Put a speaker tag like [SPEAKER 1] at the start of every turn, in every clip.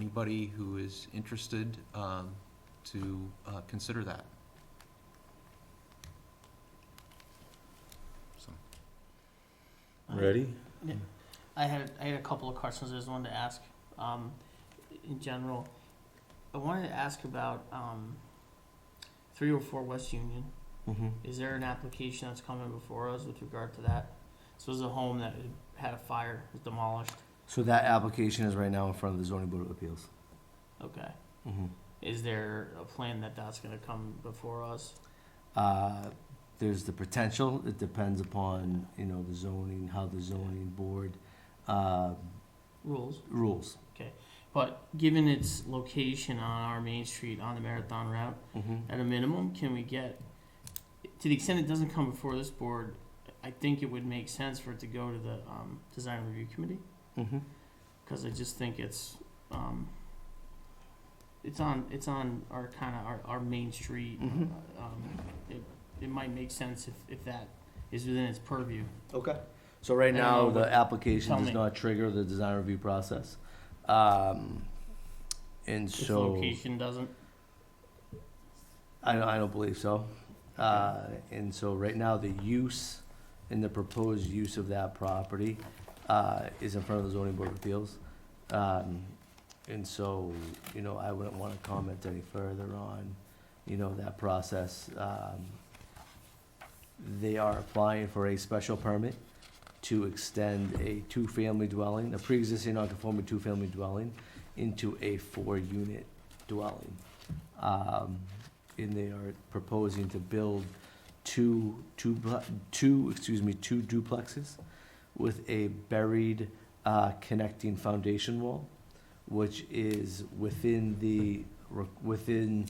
[SPEAKER 1] anybody who is interested um, to uh, consider that.
[SPEAKER 2] So,
[SPEAKER 3] Ready?
[SPEAKER 4] I had, I had a couple of questions, I just wanted to ask, um, in general, I wanted to ask about, um, three oh four West Union,
[SPEAKER 3] Mm-hmm.
[SPEAKER 4] is there an application that's coming before us with regard to that? This was a home that had a fire, was demolished,
[SPEAKER 3] So that application is right now in front of the zoning board of appeals.
[SPEAKER 4] okay,
[SPEAKER 3] Mm-hmm.
[SPEAKER 4] is there a plan that that's gonna come before us?
[SPEAKER 3] Uh, There's the potential, it depends upon, you know, the zoning, how the zoning board uh,
[SPEAKER 4] Rules,
[SPEAKER 3] rules.
[SPEAKER 4] but given its location on our main street on the Marathon Route, at a minimum, can we get, to the extent it doesn't come before this board, I think it would make sense for it to go to the, um, design review committee,
[SPEAKER 3] Mm-hmm.
[SPEAKER 4] cause I just think it's, um, it's on, it's on our kinda, our, our main street.
[SPEAKER 3] Mhm.
[SPEAKER 4] Um, it, it might make sense if, if that is within its purview.
[SPEAKER 3] Okay. So right now,
[SPEAKER 4] And, uh,
[SPEAKER 3] the application
[SPEAKER 4] tell
[SPEAKER 3] does
[SPEAKER 4] me.
[SPEAKER 3] not trigger the design review process. Um, And
[SPEAKER 4] If
[SPEAKER 3] so,
[SPEAKER 4] location doesn't,
[SPEAKER 3] I don't, I don't believe so. Uh, And so right now, the use and the proposed use of that property uh, is in front of the zoning board of appeals. Um, And so, you know, I wouldn't want to comment any further on, you know, that process. Um, They are applying for a special permit to extend a two-family dwelling, a pre-existing non-conforming two-family dwelling, into a four-unit dwelling. Um, And they are proposing to build two, two, pl- two, excuse me, two duplexes with a buried uh, connecting foundation wall, which is within the, re- within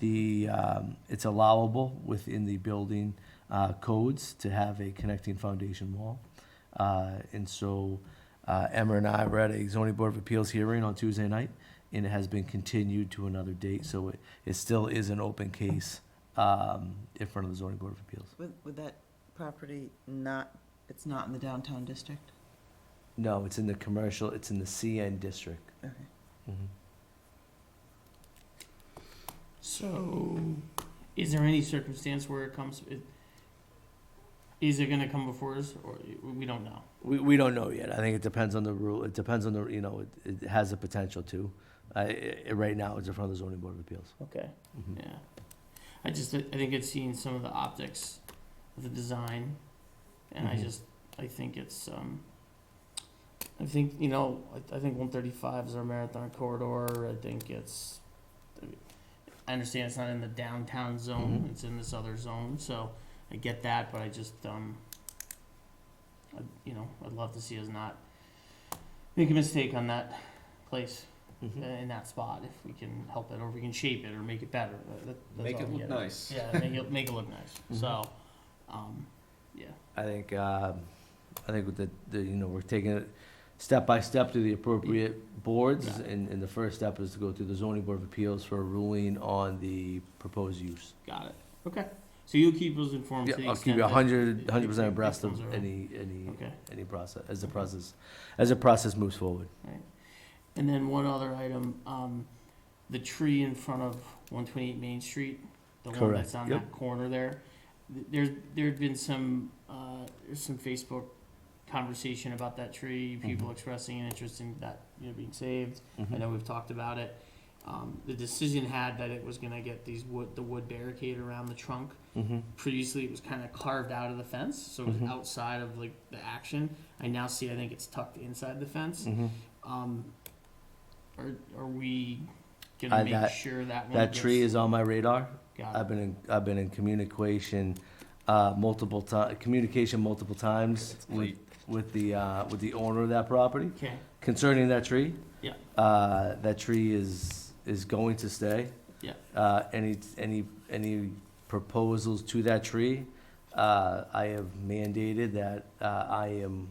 [SPEAKER 3] the, um, it's allowable within the building uh, codes to have a connecting foundation wall. Uh, And so uh, Emma and I were at a zoning board of appeals hearing on Tuesday night, and it has been continued to another date, so it, it still is an open case um, in front of the zoning board of appeals.
[SPEAKER 5] Would, would that property not, it's not in the downtown district?
[SPEAKER 3] No, it's in the commercial, it's in the CN district.
[SPEAKER 5] Okay.
[SPEAKER 3] Mhm.
[SPEAKER 4] so, is there any circumstance where it comes, it, is it gonna come before us, or, we don't know?
[SPEAKER 3] We, we don't know yet. I think it depends on the rule. It depends on the, you know, it, it has the potential to. Uh, i i right now, it's in front of the zoning board of appeals.
[SPEAKER 4] Okay.
[SPEAKER 3] Mhm.
[SPEAKER 4] Yeah. I just, I think it's seen some of the optics of the design, and I
[SPEAKER 3] Mhm.
[SPEAKER 4] just, I think it's, um, I think, you know, I, I think one thirty-five is our marathon corridor, I think it's, I understand it's not in the downtown zone,
[SPEAKER 3] Mhm.
[SPEAKER 4] it's in this other zone, so I get that, but I just, um, I, you know, I'd love to see us not make a mistake on that place
[SPEAKER 3] Mm-hmm.
[SPEAKER 4] uh, in that spot if we can help it or we can shape it or make it better. That- that- that's
[SPEAKER 1] Make
[SPEAKER 4] all
[SPEAKER 1] it
[SPEAKER 4] I'm
[SPEAKER 1] look
[SPEAKER 4] getting at.
[SPEAKER 1] nice.
[SPEAKER 4] Yeah, make it make it look
[SPEAKER 3] Mm-hmm.
[SPEAKER 4] nice. So, um, yeah,
[SPEAKER 3] I think, um I think with the, the, you know, we're taking it step by step to the appropriate boards,
[SPEAKER 4] Got
[SPEAKER 3] and, and the first step is to go through the zoning board of appeals for a ruling on the proposed use.
[SPEAKER 4] got it. Okay, so you'll keep us informed.
[SPEAKER 3] Yeah,
[SPEAKER 4] to the
[SPEAKER 3] I'll keep
[SPEAKER 4] extent
[SPEAKER 3] you a
[SPEAKER 4] that-
[SPEAKER 3] hundred,
[SPEAKER 4] it-
[SPEAKER 3] hundred
[SPEAKER 4] it-
[SPEAKER 3] percent
[SPEAKER 4] it
[SPEAKER 3] abreast of
[SPEAKER 4] becomes our own.
[SPEAKER 3] any, any,
[SPEAKER 4] Okay,
[SPEAKER 3] any process, as the
[SPEAKER 4] Okay.
[SPEAKER 3] process, as the process moves forward.
[SPEAKER 4] and then one other item, um, the tree in front of one twenty eight Main Street, the one
[SPEAKER 3] Correct,
[SPEAKER 4] that's on
[SPEAKER 3] yep.
[SPEAKER 4] that corner there. th- There's there'd been some uh, there's some Facebook conversation about that tree. People
[SPEAKER 3] Mhm.
[SPEAKER 4] expressing an interest in that you know being saved. I
[SPEAKER 3] Mhm.
[SPEAKER 4] know we've talked about it. Um, the decision had that it was gonna get these wood, the wood barricade around the trunk.
[SPEAKER 3] Mhm.
[SPEAKER 4] Previously, it was kind of carved out of the fence, so it was
[SPEAKER 3] Mhm.
[SPEAKER 4] outside of like the action. I now see, I think it's tucked inside the fence.
[SPEAKER 3] Mhm.
[SPEAKER 4] Um, are, are we
[SPEAKER 3] Uh,
[SPEAKER 4] gonna make
[SPEAKER 3] that-
[SPEAKER 4] sure that one
[SPEAKER 3] That tree
[SPEAKER 4] gets-
[SPEAKER 3] is on my radar.
[SPEAKER 4] Got
[SPEAKER 3] I've been in, I've been in communication, uh, multiple ti- communication multiple times
[SPEAKER 1] It's
[SPEAKER 3] with,
[SPEAKER 1] late.
[SPEAKER 3] with the, uh, with the owner of that property
[SPEAKER 4] it. Okay,
[SPEAKER 3] concerning that tree.
[SPEAKER 4] Yeah.
[SPEAKER 3] Uh, that tree is, is going to stay.
[SPEAKER 4] Yeah.
[SPEAKER 3] Uh, any, any, any proposals to that tree, uh, I have mandated that, uh, I am,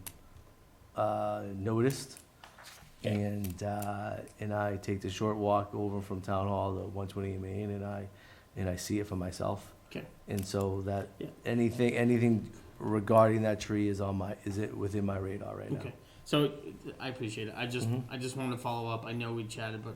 [SPEAKER 3] uh, noticed.
[SPEAKER 4] Yeah.
[SPEAKER 3] And, uh, and I take the short walk over from Town Hall to one twenty Main and I, and I see it for myself.
[SPEAKER 4] Okay.
[SPEAKER 3] And so that,
[SPEAKER 4] Yeah.
[SPEAKER 3] anything, anything regarding that tree is on my, is it within my radar right now.
[SPEAKER 4] okay. So I appreciate it. I just,
[SPEAKER 3] Mhm.
[SPEAKER 4] I just wanted to follow up. I know we chatted, but